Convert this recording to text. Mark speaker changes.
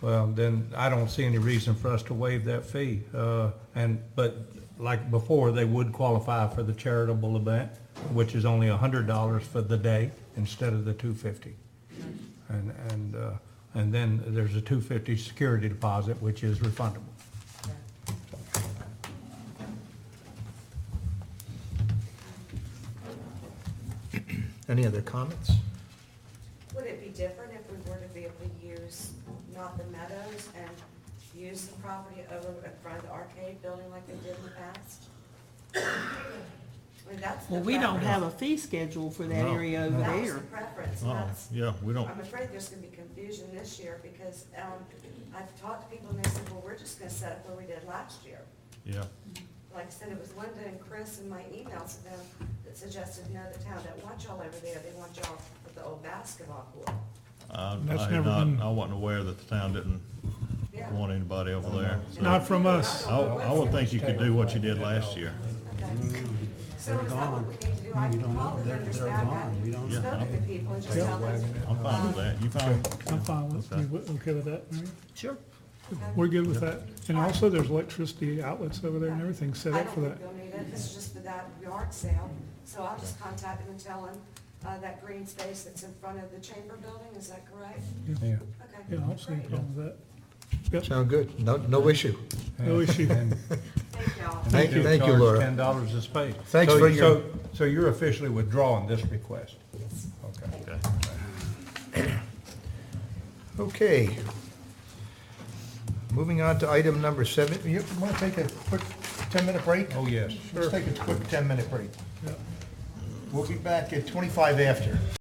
Speaker 1: Well, then I don't see any reason for us to waive that fee. Uh, and, but like before, they would qualify for the charitable event, which is only a hundred dollars for the day instead of the two fifty. And, and, uh, and then there's a two fifty security deposit, which is refundable.
Speaker 2: Any other comments?
Speaker 3: Would it be different if we were to be able to use not the meadows and use the property over in front of the arcade building like they did in the past? I mean, that's the
Speaker 4: Well, we don't
Speaker 3: preference.
Speaker 4: have a fee schedule for that
Speaker 5: No,
Speaker 4: area over
Speaker 3: That's the
Speaker 4: there.
Speaker 3: preference, and
Speaker 5: Oh,
Speaker 3: that's,
Speaker 5: yeah, we don't,
Speaker 3: I'm afraid there's gonna be confusion this year because, um, I've talked to people and they said, well, we're just gonna set up where we did last year.
Speaker 5: yeah,
Speaker 3: Like I said, it was Linda and Chris in my emails to them that suggested, no, the town don't want y'all over there, they want y'all with the old basketball court.
Speaker 5: I,
Speaker 6: That's
Speaker 5: I had
Speaker 6: never
Speaker 5: not,
Speaker 6: been-
Speaker 5: I wasn't aware that the town didn't
Speaker 3: Yeah.
Speaker 5: want anybody over there. so-
Speaker 6: Not from us.
Speaker 5: I, I would think you could do what you did last year.
Speaker 3: Okay. So is that what we need to do? I can call them, understand that. We don't
Speaker 5: Yeah,
Speaker 3: Spoke to the people and just tell them.
Speaker 5: I'm fine with that, you fine?
Speaker 6: I'm fine with,
Speaker 5: Okay.
Speaker 6: you w- okay with that, Mary?
Speaker 4: Sure.
Speaker 6: We're good with that. And also, there's electricity outlets over there and everything set up for
Speaker 3: I
Speaker 6: that.
Speaker 3: don't think they'll need it. This is just for that yard sale. So I'll just contact them and tell them, uh, that green space that's in front of the chamber building, is that correct?
Speaker 1: Yeah.
Speaker 3: Okay.
Speaker 6: Yeah, I don't see any
Speaker 3: great.
Speaker 6: problem with that. Yep,
Speaker 2: Sound good? No, no issue.
Speaker 6: no issue.
Speaker 1: And-
Speaker 3: Thank y'all.
Speaker 2: Thank you,
Speaker 1: You'll
Speaker 2: thank you,
Speaker 1: charge
Speaker 2: Laura.
Speaker 1: Ten dollars a space.
Speaker 2: Thanks
Speaker 1: So-
Speaker 2: for your-
Speaker 1: so- So you're officially withdrawing this request?
Speaker 3: Yes.
Speaker 1: Okay.
Speaker 5: Okay.
Speaker 2: Okay. Moving on to item number seven. You want to take a quick 10-minute break?
Speaker 1: Oh, yes.
Speaker 2: Let's take a quick 10-minute break.
Speaker 6: Yep.
Speaker 2: We'll be back at 25 after.